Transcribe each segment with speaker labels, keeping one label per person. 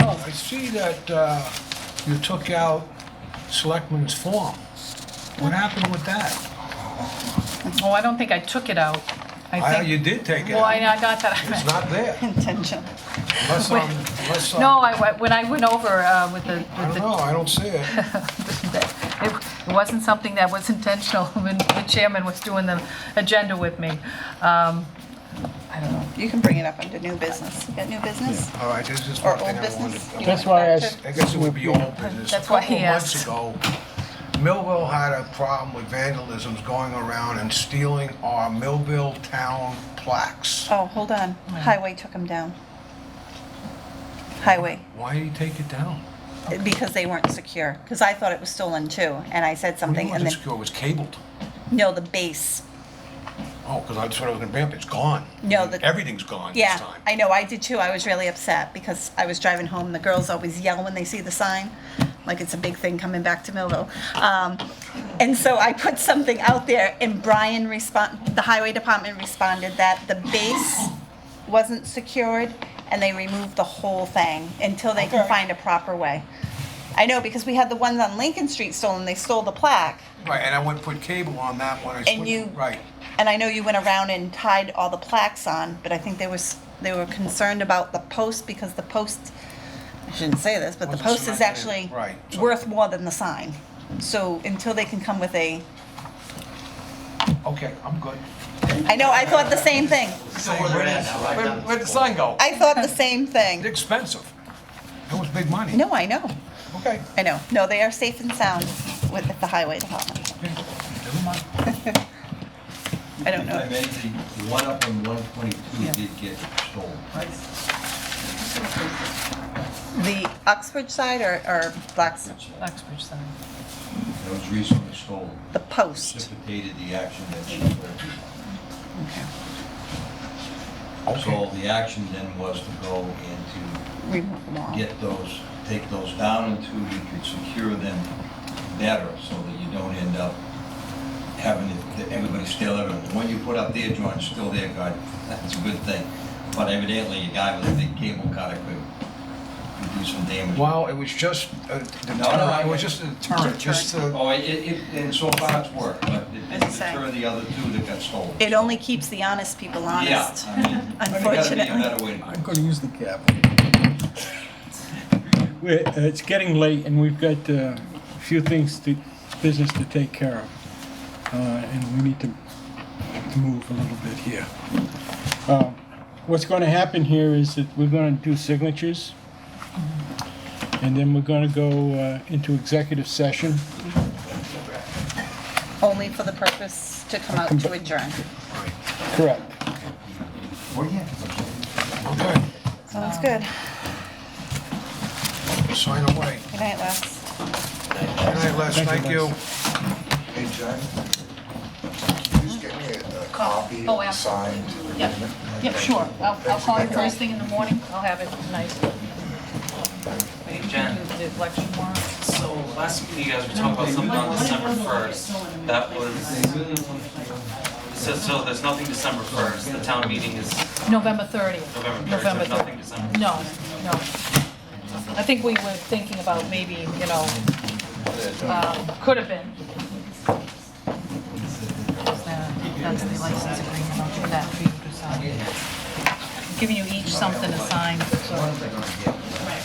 Speaker 1: Oh, see that uh, you took out selectman's form. What happened with that?
Speaker 2: Well, I don't think I took it out.
Speaker 1: I-
Speaker 2: I
Speaker 1: You
Speaker 2: think,
Speaker 1: did take it
Speaker 2: well, I
Speaker 1: out.
Speaker 2: I got that. I
Speaker 1: It's
Speaker 2: meant-
Speaker 1: not there.
Speaker 3: Intention.
Speaker 1: Unless I'm, unless I'm...
Speaker 2: No, I, went- when I went over uh, with the,
Speaker 1: I
Speaker 2: with
Speaker 1: don't
Speaker 2: the
Speaker 1: know, I don't see it.
Speaker 2: It it wasn't something that was intentional when the chairman was doing the agenda with me. Um, I don't know.
Speaker 3: You can bring it up under new business. You got new business?
Speaker 1: All right, there's just
Speaker 3: Or
Speaker 1: one
Speaker 3: old
Speaker 1: thing I wanted. I
Speaker 3: business? You
Speaker 1: wanted-
Speaker 4: That's why I
Speaker 3: want
Speaker 4: s-
Speaker 1: I guess it would be old business.
Speaker 2: That's why he
Speaker 1: A
Speaker 2: asked.
Speaker 1: couple months ago, Millville had a problem with vandalisms going around and stealing our Millville town plaques.
Speaker 3: Oh, hold on. Highway took them down. Highway,
Speaker 1: Why did he take it down?
Speaker 3: because they weren't secure. Because I thought it was stolen too, and I said
Speaker 1: What do you
Speaker 3: something,
Speaker 1: want
Speaker 3: and
Speaker 1: to
Speaker 3: then,
Speaker 1: secure? It was cabled.
Speaker 3: no, the base.
Speaker 1: Oh, because I just thought it was going to be up. It's gone.
Speaker 3: No, the-
Speaker 1: Everything's gone this
Speaker 3: Yeah,
Speaker 1: time.
Speaker 3: I know, I did too. I was really upset because I was driving home. The girls always yell when they see the sign, like it's a big thing coming back to Millville. Um, and so I put something out there, and Brian respond, the highway department responded that the base wasn't secured, and they removed the whole thing until they can find a proper way. I know because we had the ones on Lincoln Street stolen. They stole the plaque,
Speaker 1: Right, and I went and put cable on that one. I
Speaker 3: and
Speaker 1: switched-
Speaker 3: you
Speaker 1: Right.
Speaker 3: And I know you went around and tied all the plaques on, but I think they was they were concerned about the post because the post. I shouldn't say this, but the
Speaker 1: Wasn't
Speaker 3: post is
Speaker 1: cemented in,
Speaker 3: actually
Speaker 1: right, so-
Speaker 3: worth more than the sign. So until they can come with a,
Speaker 1: Okay, I'm good.
Speaker 3: I know I thought the same thing.
Speaker 5: So where they're at now, right?
Speaker 4: Where-
Speaker 5: Down-
Speaker 4: Where'd the sign go?
Speaker 3: I thought the same
Speaker 1: It's
Speaker 3: thing.
Speaker 1: expensive. That was big money.
Speaker 3: No, I know,
Speaker 1: Okay.
Speaker 3: I know. No, they are safe and sound with at the highway department.
Speaker 1: okay, Never mind.
Speaker 3: I don't
Speaker 5: I
Speaker 3: know.
Speaker 5: meant the one up on one twenty-two did get stolen.
Speaker 3: The Oxford side or, or Blacks,
Speaker 2: Uxbridge Center.
Speaker 5: That was recently stolen,
Speaker 3: the post.
Speaker 5: precipitated the action that she took. So the action then was to go and
Speaker 3: Re-
Speaker 5: to get those, take those down until you could secure them better so that you don't end up having it- that everybody steal everything. The one you put up there, John, is still there, God, that's a good thing. But evidently, your guy with a big cable cutter could could do some damage.
Speaker 1: Well, it was just a
Speaker 5: No, no,
Speaker 1: deterrent,
Speaker 5: I-
Speaker 1: it was just a deterrent, just a,
Speaker 5: Oh, it, it, it- and so far it's worked, but it didn't
Speaker 3: As I say.
Speaker 5: deter the other two that got stolen.
Speaker 3: It only keeps the honest people
Speaker 5: Yeah,
Speaker 3: honest.
Speaker 5: I mean, there's gotta be a
Speaker 3: Unfortunately.
Speaker 5: better way to
Speaker 4: I'm gonna use the cap. We're- uh, It's getting late and we've got uh, a few things to, business to take care of. Uh, And we need to to move a little bit here. Um, What's gonna happen here is that we're gonna do signatures. And then we're gonna go uh, into executive session.
Speaker 3: Only for the purpose to come out to adjourn.
Speaker 4: Correct.
Speaker 2: Oh,
Speaker 1: okay,
Speaker 3: Sounds good.
Speaker 1: sign away.
Speaker 3: Good night, Les.
Speaker 1: Good night, Les,
Speaker 4: Thank you,
Speaker 1: thank you.
Speaker 6: Hey, John, can you just get me a a copy
Speaker 2: Oh,
Speaker 6: of the signed?
Speaker 2: Yep, yep, sure. I'll, I'll call you first thing in the morning. I'll have it nice.
Speaker 7: Hey, Jen.
Speaker 2: The election warrant.
Speaker 7: So last meeting, you guys were talking about something on December first. That was, so, so there's nothing December first. The town meeting is
Speaker 2: November 30th.
Speaker 7: November first. There's
Speaker 2: thir-
Speaker 7: nothing December.
Speaker 2: No, no. I think we were thinking about maybe, you know, um, could have been. That's the license agreement, I'll do that for you to sign. Giving you each something to sign, so.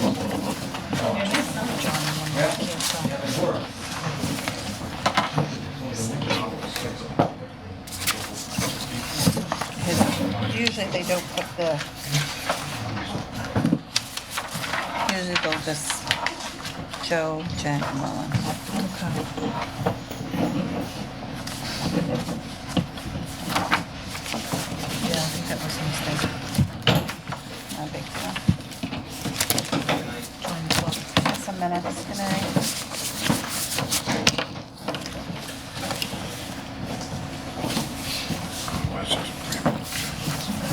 Speaker 2: And there's another John in there, I can't sign.
Speaker 3: Usually they don't put the, usually they'll just Joe, Jen, and Mullen.
Speaker 2: Yeah, I think that was a mistake.
Speaker 3: Not a big deal. Some minutes, good night.
Speaker 1: Les is pretty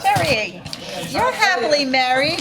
Speaker 3: Terry, you're happily married.